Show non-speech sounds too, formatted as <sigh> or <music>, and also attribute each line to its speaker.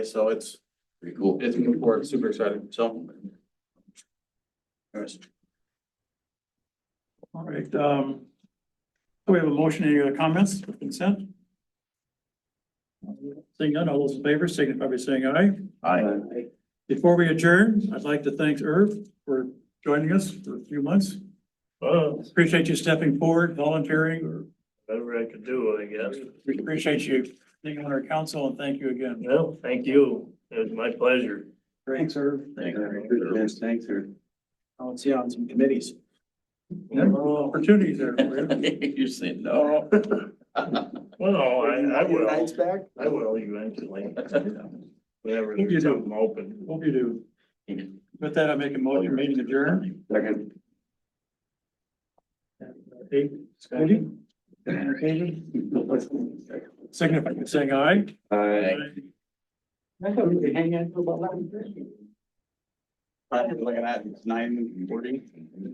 Speaker 1: So it's,
Speaker 2: Pretty cool.
Speaker 1: it's moving forward, super exciting, so. Alright.
Speaker 3: All right, um, we have a motion, any other comments with consent? Seeing none, all those in favor signify by saying aye.
Speaker 2: Aye.
Speaker 3: Before we adjourn, I'd like to thank Irv for joining us for a few months.
Speaker 4: Well,
Speaker 3: Appreciate you stepping forward, volunteering.
Speaker 4: whatever I could do, I guess.
Speaker 3: We appreciate you being on our council and thank you again.
Speaker 4: Well, thank you. It was my pleasure.
Speaker 1: Thanks, Irv.
Speaker 2: Thank you. <laughs>
Speaker 1: Thanks, thanks, Irv. I'll see you on some committees.
Speaker 3: Opportunities there for you.
Speaker 2: You're saying no.
Speaker 4: Oh. Well, I, I will.
Speaker 1: Nights back?
Speaker 4: I will eventually, whenever
Speaker 3: You
Speaker 4: there's
Speaker 3: do.
Speaker 4: something open.
Speaker 3: Hope you do. With that, I make a motion, meeting adjourned.
Speaker 2: Second.
Speaker 3: Eight, Eighty? Eighty? Signify by saying aye.
Speaker 2: Aye.
Speaker 1: I thought we could hang out till about eleven thirty. Probably looking at nine forty.